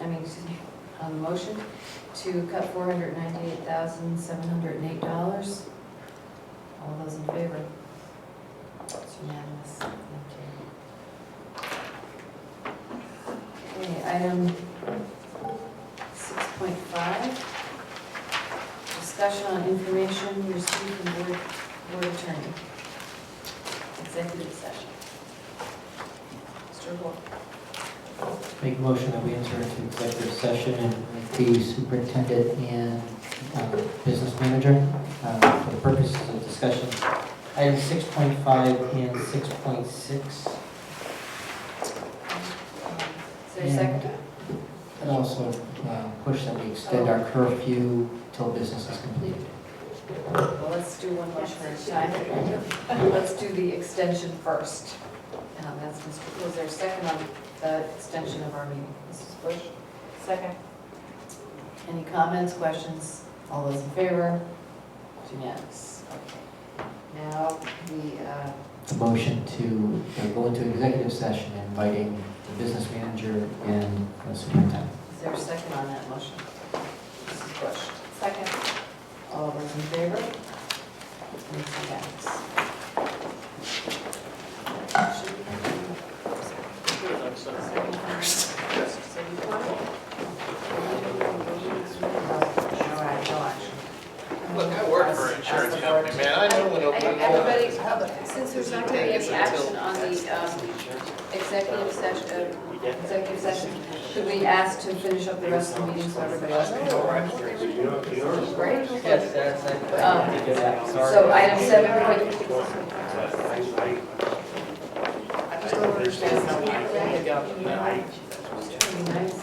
I mean, excuse me, on the motion to cut four hundred ninety-eight thousand, seven hundred and eight dollars. All those in favor? It's unanimous. Thank you. Okay, item six point five. Discussion on information received from board, board attorney. Executive session. Mr. Wolf. Make a motion that we enter into executive session and with the superintendent and uh, business manager uh, for the purposes of discussion. Items 6.5 and 6.6. Is there a second? And also uh, push that we extend our curfew till business is completed. Well, let's do one motion at a time. Let's do the extension first. Um, That's Mr. Was there a second on the extension of our meeting? Mrs. Bush? Second. Any comments, questions? All those in favor? It's Unanimous. Okay. Now, we, uh, The motion to uh, go into executive session inviting the business manager and the superintendent. is there a second on that motion? Mrs. Bush? Second. All those in favor? And it's unanimous. Should we have a second first? So you want it? All right, no action. Look, I work for an insurance company, man, I know when open enrollment is. Everybody, since there's not going to be any action on the um, executive session, uh, executive session, should we ask to finish up the rest of the meeting so everybody else can go Great. Yes, that's Um, it. So item seven point I just don't understand how we- Yeah. twenty-nine, um,